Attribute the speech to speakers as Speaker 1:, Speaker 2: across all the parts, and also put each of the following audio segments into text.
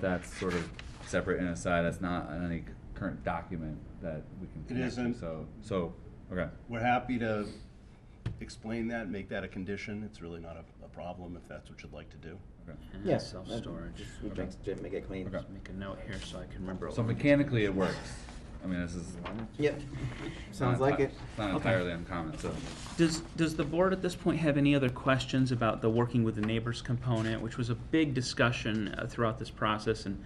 Speaker 1: that's sort of separate and aside, that's not on any current document that we can connect to,
Speaker 2: isn't.
Speaker 1: so, so, okay.
Speaker 2: We're happy to explain that, make that a condition. It's really not a, a problem if that's what you'd like to do.
Speaker 1: okay.
Speaker 3: Yeah,
Speaker 4: Yes. Self-storage.
Speaker 3: just would make, just make it clean.
Speaker 1: Okay.
Speaker 4: Just make a note here so I can remember. what
Speaker 1: So
Speaker 4: we-
Speaker 1: mechanically, it works. I mean, this is.
Speaker 3: Yep,
Speaker 1: not
Speaker 3: sounds like
Speaker 1: enti-
Speaker 3: it.
Speaker 1: It's not
Speaker 5: Okay.
Speaker 1: entirely uncommon, so,
Speaker 5: Does, does the board at this point have any other questions about the working with the neighbors component, which was a big discussion uh, throughout this process, and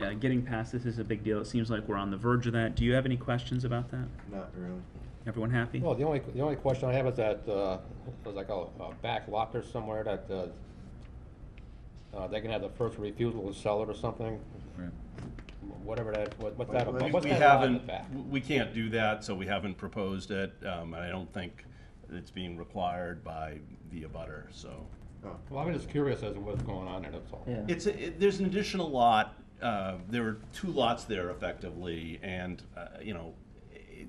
Speaker 5: uh, getting past this is a big deal. It seems like we're on the verge of that. Do you have any questions about that?
Speaker 3: Not really.
Speaker 5: Everyone happy?
Speaker 6: Well, the only, the only question I have is that, uh, there's like a, a back lot or somewhere that, uh, uh, they can have the first refusal to sell it or something,
Speaker 1: right.
Speaker 6: whatever that, what- what's that,
Speaker 2: We-
Speaker 6: about- what's
Speaker 2: we
Speaker 6: that lot in the
Speaker 2: haven't-
Speaker 6: back?
Speaker 2: w- We can't do that, so we haven't proposed it. Um, and I don't think it's being required by the abutter, so.
Speaker 6: Well, I'm just curious as to what's going on there, that's all.
Speaker 3: Yeah.
Speaker 2: It's, a- it- there's an additional lot, uh, there are two lots there effectively, and, uh, you know, it-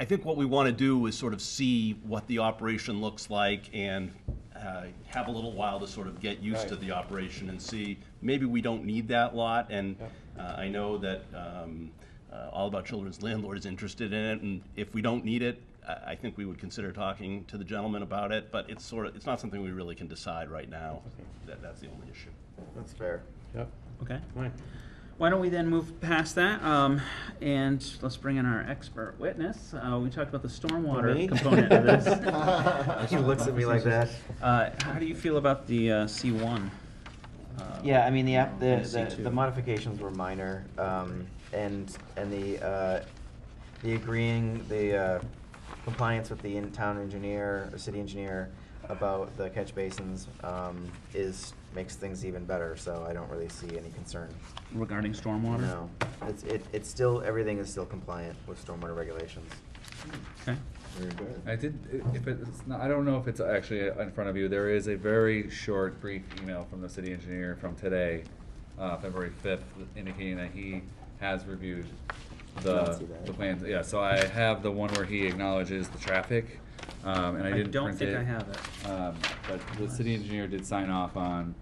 Speaker 2: I think what we want to do is sort of see what the operation looks like and uh, have a little while to sort of get used to
Speaker 6: Right.
Speaker 2: the operation and see, maybe we don't need that lot, and
Speaker 6: Yeah.
Speaker 2: uh, I know that um, uh, All About Children's landlord is interested in it, and if we don't need it, I I think we would consider talking to the gentleman about it, but it's sort of, it's not something we really can decide right now. That, that's the only issue.
Speaker 3: That's fair.
Speaker 6: Yep,
Speaker 5: Okay.
Speaker 6: fine.
Speaker 5: Why don't we then move past that, um, and let's bring in our expert witness. Uh, we talked about the stormwater
Speaker 3: Me?
Speaker 5: component of this.
Speaker 3: He looks at me like that.
Speaker 5: Uh, how do you feel about the, uh, C one? Uh,
Speaker 3: Yeah, I mean, the app,
Speaker 5: Yeah,
Speaker 3: the, the,
Speaker 5: C2.
Speaker 3: the modifications were minor, um, and, and the, uh, the agreeing, the, uh, compliance with the in-town engineer, or city engineer about the catch basins, um, is, makes things even better, so I don't really see any concern.
Speaker 5: Regarding stormwater?
Speaker 3: No, it's, it, it's still, everything is still compliant with stormwater regulations.
Speaker 5: Okay.
Speaker 1: I did, if it's not, I don't know if it's actually in front of you, there is a very short, brief email from the city engineer from today, uh, February fifth, indicating that he has reviewed
Speaker 3: Don't
Speaker 1: the,
Speaker 3: see that.
Speaker 1: the plans, yeah, so I have the one where he acknowledges the traffic, um, and I
Speaker 5: I
Speaker 1: didn't
Speaker 5: don't
Speaker 1: print it.
Speaker 5: think I have it.
Speaker 1: Um, but the city engineer did sign off on,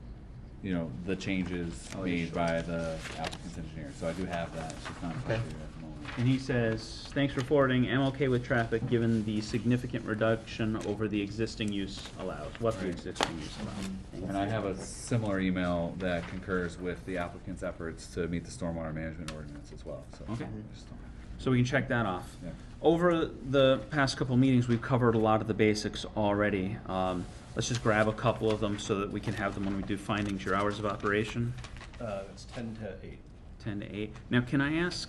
Speaker 1: you know, the changes
Speaker 3: Oh,
Speaker 1: made by the applicant's engineer, so I do have that, it's just not in front of you at
Speaker 3: Okay.
Speaker 1: the moment.
Speaker 5: And he says, thanks for forwarding, I'm okay with traffic given the significant reduction over the existing use allows, what the
Speaker 1: Right. Mm-hmm.
Speaker 5: existing use allows.
Speaker 1: And I have a similar email that concurs with the applicant's efforts to meet the stormwater management ordinance as well, so.
Speaker 5: Okay.
Speaker 1: Just don't-
Speaker 5: So we can check that off.
Speaker 1: Yeah.
Speaker 5: Over the past couple meetings, we've covered a lot of the basics already. Um, let's just grab a couple of them so that we can have them when we do findings, your hours of operation,
Speaker 2: Uh, it's ten to eight.
Speaker 5: ten to eight. Now, can I ask,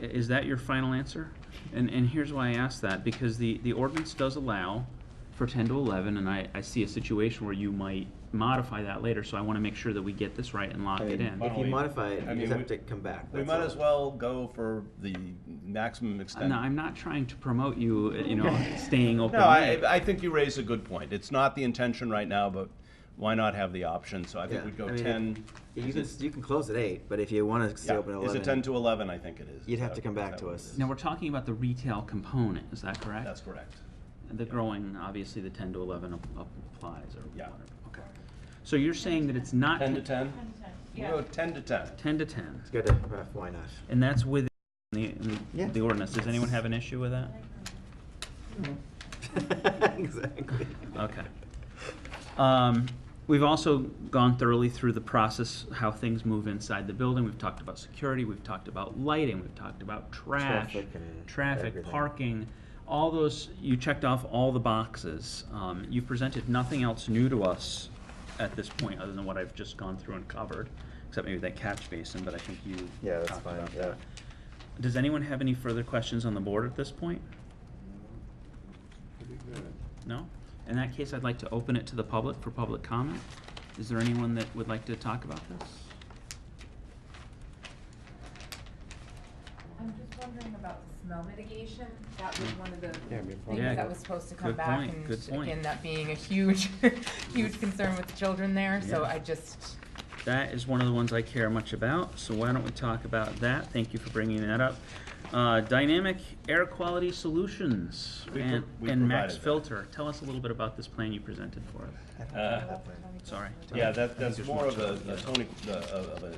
Speaker 5: i- is that your final answer? And, and here's why I ask that, because the, the ordinance does allow for ten to eleven, and I, I see a situation where you might modify that later, so I wanna make sure that we get this right and lock
Speaker 3: I
Speaker 5: it
Speaker 3: mean,
Speaker 5: in.
Speaker 2: Why
Speaker 3: if
Speaker 2: don't
Speaker 3: you
Speaker 2: we-
Speaker 3: modify
Speaker 2: I
Speaker 3: it, you
Speaker 2: mean,
Speaker 3: just
Speaker 2: we-
Speaker 3: have to come back.
Speaker 2: We
Speaker 3: that's
Speaker 2: might
Speaker 3: all.
Speaker 2: as well go for the maximum
Speaker 5: Uh,
Speaker 2: extent.
Speaker 5: No, I'm not trying to promote you, uh, you know, staying open.
Speaker 2: No, I,
Speaker 5: late.
Speaker 2: I think you raise a good point. It's not the intention right now, but why not have the option? So I think
Speaker 3: Yeah,
Speaker 2: we'd go
Speaker 3: I mean,
Speaker 2: ten.
Speaker 3: if- You can, you can close at eight, but if you wanna stay
Speaker 2: Yeah,
Speaker 3: open at
Speaker 2: Is
Speaker 3: eleven.
Speaker 2: it ten to eleven, I think it is.
Speaker 3: You'd have
Speaker 2: Is
Speaker 3: to
Speaker 2: that-
Speaker 3: come
Speaker 2: is
Speaker 3: back
Speaker 2: that
Speaker 3: to
Speaker 2: what it
Speaker 3: us.
Speaker 2: is?
Speaker 5: Now, we're talking about the retail component, is that correct?
Speaker 2: That's correct.
Speaker 5: The growing, obviously, the ten to eleven ap- applies or
Speaker 2: Yeah.
Speaker 5: whatever, okay. So you're saying that it's not.
Speaker 2: Ten to ten?
Speaker 7: Yeah.
Speaker 2: We'll go ten to ten.
Speaker 5: Ten to ten,
Speaker 3: It's good to, uh, why not?
Speaker 5: and that's within the, the-
Speaker 3: Yeah.
Speaker 5: the ordinance, does anyone have an issue with that?
Speaker 3: Exactly.
Speaker 5: Okay. Um, we've also gone thoroughly through the process, how things move inside the building. We've talked about security, we've talked about lighting, we've talked about trash,
Speaker 3: Traffic and
Speaker 5: traffic,
Speaker 3: everything.
Speaker 5: parking. All those, you checked off all the boxes. Um, you've presented nothing else new to us at this point, other than what I've just gone through and covered, except maybe that catch basin, but I think you
Speaker 3: Yeah, that's
Speaker 5: talked
Speaker 3: fine,
Speaker 5: about
Speaker 3: yeah.
Speaker 5: that. Does anyone have any further questions on the board at this point? No? In that case, I'd like to open it to the public for public comment. Is there anyone that would like to talk about this?
Speaker 7: I'm just wondering about the smell mitigation. That was one of the
Speaker 6: Yeah, we probably-
Speaker 5: Yeah,
Speaker 7: things that was supposed to come
Speaker 5: good
Speaker 7: back.
Speaker 5: point,
Speaker 7: and
Speaker 5: good point.
Speaker 7: Again, that being a huge, huge concern with the children there, so
Speaker 5: Yeah.
Speaker 7: I just,
Speaker 5: That is one of the ones I care much about, so why don't we talk about that? Thank you for bringing that up. Uh, Dynamic air quality solutions
Speaker 2: We pro-
Speaker 5: and
Speaker 2: we
Speaker 5: and
Speaker 2: provided
Speaker 5: max
Speaker 2: that.
Speaker 5: filter. Tell us a little bit about this plan you presented for us.
Speaker 2: Uh,
Speaker 5: Sorry.
Speaker 2: Yeah, that, that's more of a, a Tony, the- of of a